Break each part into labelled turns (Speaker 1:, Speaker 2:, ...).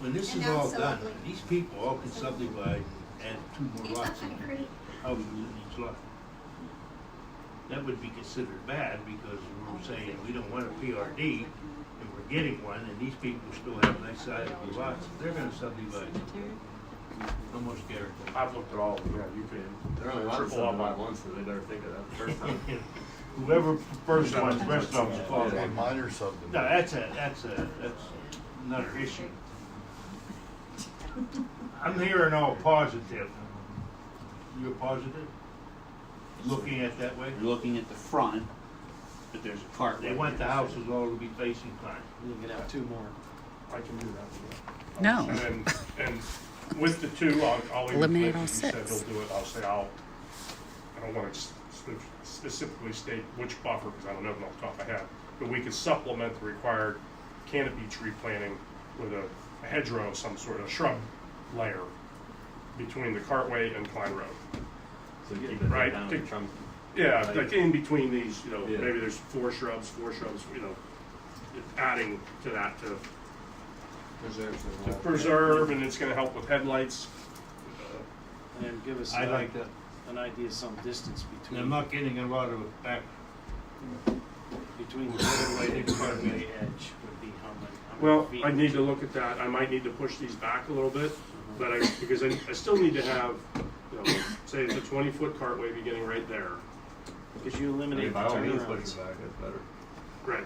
Speaker 1: when this
Speaker 2: And
Speaker 1: is
Speaker 2: that's
Speaker 1: all
Speaker 2: so
Speaker 1: done,
Speaker 2: ugly.
Speaker 1: these people all can subdivide, add two more lots in there, how we lose each lot. That would be considered bad because we're saying we don't want a PRD and we're getting one and these people still have nice sized lots, they're gonna subdivide. Almost guaranteed.
Speaker 3: I've looked at all of them, yeah, you can
Speaker 4: There are only a lot of
Speaker 3: Triple up
Speaker 4: seven by
Speaker 3: on-
Speaker 4: ones, so they better think of that the first time.
Speaker 3: Whoever first one's rest of them's
Speaker 4: Well,
Speaker 3: following.
Speaker 5: minor
Speaker 1: No,
Speaker 5: subdivision.
Speaker 1: that's a, that's a, that's another issue.
Speaker 3: I'm hearing all positive.
Speaker 1: You're positive? Looking at that way?
Speaker 6: You're looking at the front, but there's a cart.
Speaker 1: They
Speaker 6: right
Speaker 1: want the
Speaker 6: there.
Speaker 1: houses all to be facing Klein.
Speaker 7: You can have two more.
Speaker 3: I can do that.
Speaker 8: No.
Speaker 3: And, and with the two, I'll, I'll. leave it
Speaker 8: Eliminate all
Speaker 3: blank. He said
Speaker 8: six.
Speaker 3: He'll do it, I'll say I'll, I don't wanna s- spe- specifically state which buffer, cause I don't know them off the top of my head. But we could supplement the required canopy tree planting with a a hedgerow, of some sort of shrub layer between the cartway and Klein Road.
Speaker 4: So keep it
Speaker 3: Right.
Speaker 4: down
Speaker 3: Take-
Speaker 4: and trunk.
Speaker 3: Yeah, like in between these, you know,
Speaker 4: Yeah.
Speaker 3: maybe there's four shrubs, four shrubs, you know, adding to that to
Speaker 7: Preserves the
Speaker 4: Oh,
Speaker 3: to
Speaker 7: wall.
Speaker 3: preserve, and it's gonna help with headlights.
Speaker 7: And then give us
Speaker 1: I
Speaker 7: an
Speaker 1: like
Speaker 7: idea-
Speaker 1: that.
Speaker 7: an idea of some distance
Speaker 1: And I'm
Speaker 7: between,
Speaker 1: not getting a lot of back,
Speaker 7: between the roadway and roadway edge would be how many, how many
Speaker 3: Well,
Speaker 7: feet.
Speaker 3: I need to look at that, I might need to push these back a little bit, but I, because I, I still need to have, you know, say it's a twenty-foot cartway beginning right there.
Speaker 7: Because you
Speaker 4: I mean,
Speaker 7: eliminate the
Speaker 4: by all means, push
Speaker 7: turnarounds.
Speaker 4: it back, that's better.
Speaker 3: Right,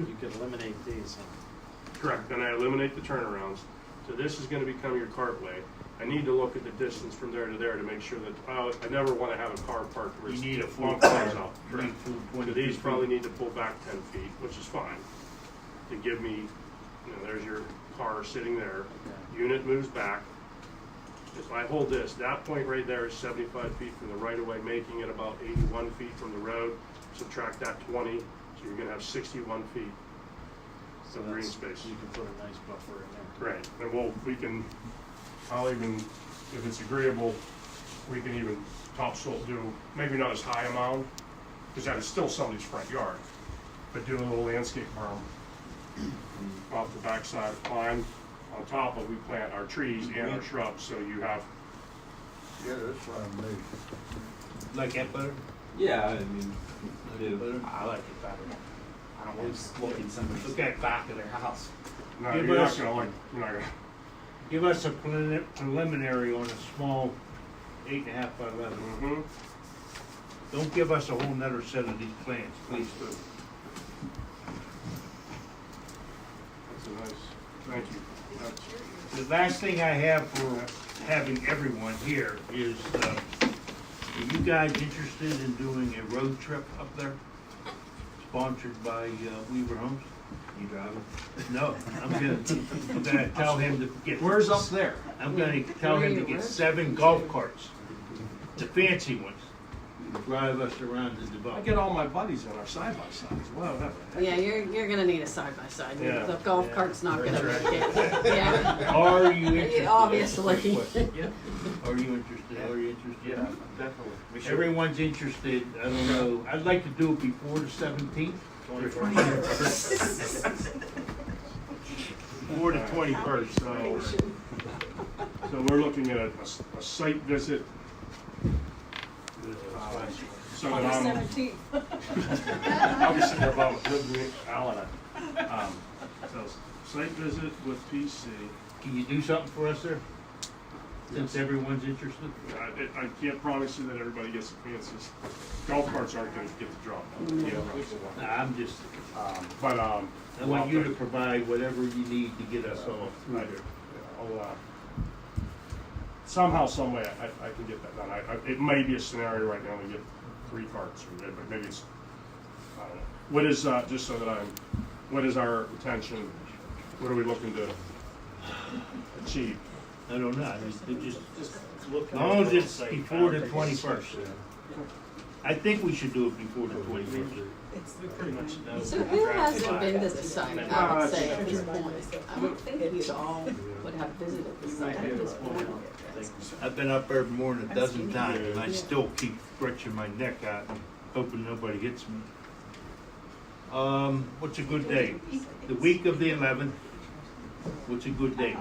Speaker 7: You could eliminate these, huh?
Speaker 3: correct, then I eliminate the turnarounds, so this is gonna become your cartway. I need to look at the distance from there to there to make sure that, oh, I never wanna have a car parked where
Speaker 1: you
Speaker 3: it's.
Speaker 1: need a full
Speaker 3: long
Speaker 1: car,
Speaker 3: cars out.
Speaker 1: you need
Speaker 3: Correct.
Speaker 1: full
Speaker 3: So
Speaker 1: twenty-two
Speaker 3: these probably
Speaker 1: feet.
Speaker 3: need to pull back ten feet, which is fine, to give me, you know, there's your car sitting there, unit moves back. If I hold this, that point right there is seventy-five feet from the right-of-way, making it about eighty-one feet from the road, subtract that twenty, so you're gonna have sixty-one feet.
Speaker 7: So
Speaker 3: Some green
Speaker 7: that's-
Speaker 3: space.
Speaker 7: You can put a nice buffer in there.
Speaker 3: Right. And we'll, we can, I'll even, if it's agreeable, we can even topsoil do, maybe not as high a mound, because that is still somebody's front yard, but do a little landscape berm off the backside of Klein, on top of we plant our trees and
Speaker 6: Mm-hmm.
Speaker 3: our shrubs, so you have,
Speaker 5: Yeah, that's fine, maybe.
Speaker 1: like that better?
Speaker 4: Yeah, I mean,
Speaker 1: Like
Speaker 4: Yeah.
Speaker 1: that better?
Speaker 6: I like it better. I don't want to look in somebody's
Speaker 1: Okay.
Speaker 6: back of their house.
Speaker 3: no,
Speaker 1: Yeah,
Speaker 3: you're not
Speaker 1: but-
Speaker 3: gonna like, you're not gonna,
Speaker 1: Give us a prelimi- preliminary on a small eight and a half by eleven.
Speaker 3: mhm.
Speaker 1: Don't give us a whole nother set of these plans, please do.
Speaker 3: That's a nice, thank you. That's-
Speaker 1: The last thing I have for having everyone here is, uh, are you guys interested in doing a road trip up there? Sponsored by uh, Weaver Homes?
Speaker 4: you driving?
Speaker 1: No, I'm gonna, I'm gonna tell him to get.
Speaker 6: Where's up there?
Speaker 1: I'm gonna tell him to get seven golf carts, the fancy ones, and drive us around the
Speaker 3: I
Speaker 1: development.
Speaker 3: get all my buddies on our side by sides, wow, that.
Speaker 9: Yeah, you're, you're gonna need a side by side.
Speaker 3: Yeah.
Speaker 9: The golf
Speaker 1: Yeah.
Speaker 9: cart's not gonna make it. Yeah,
Speaker 1: Are you interested?
Speaker 9: obviously.
Speaker 1: Yeah. Are you interested? Are you interested?
Speaker 3: Yeah, definitely.
Speaker 1: Everyone's interested, I don't know, I'd like to do it before the seventeenth.
Speaker 3: Before the twenty-first, so. So we're looking at a, a s- a site visit, uh, so that I'm,
Speaker 2: Seventeenth.
Speaker 3: I'll be sitting there about a good week, Alan. Um, so s- site visit with PC,
Speaker 1: Can you do something for us there? Since everyone's interested?
Speaker 3: I, I- I can't promise you that everybody gets the chances. Golf carts aren't gonna get the job.
Speaker 1: Nah, I'm just,
Speaker 3: Um, But, um.
Speaker 1: I want you to provide whatever you need to get us all through
Speaker 3: I
Speaker 1: there.
Speaker 3: do. I'll, uh, somehow, some way, I, I can get that done. I, I, it may be a scenario right now to get three carts or maybe, maybe it's, I don't know. What is, uh, just so that I'm, what is our intention? What are we looking to achieve?
Speaker 1: I don't know, I just, it just, as long as it's before the twenty-first. I think we should do it before the twenty-first.
Speaker 9: So who hasn't been to the site, I would say, at this point? I would think you all would have visited the site at this point.
Speaker 1: I've been up there more than a dozen times, and I still keep stretching my neck out, hoping nobody hits me. Um, what's a good day? The week of the eleventh, what's a good day?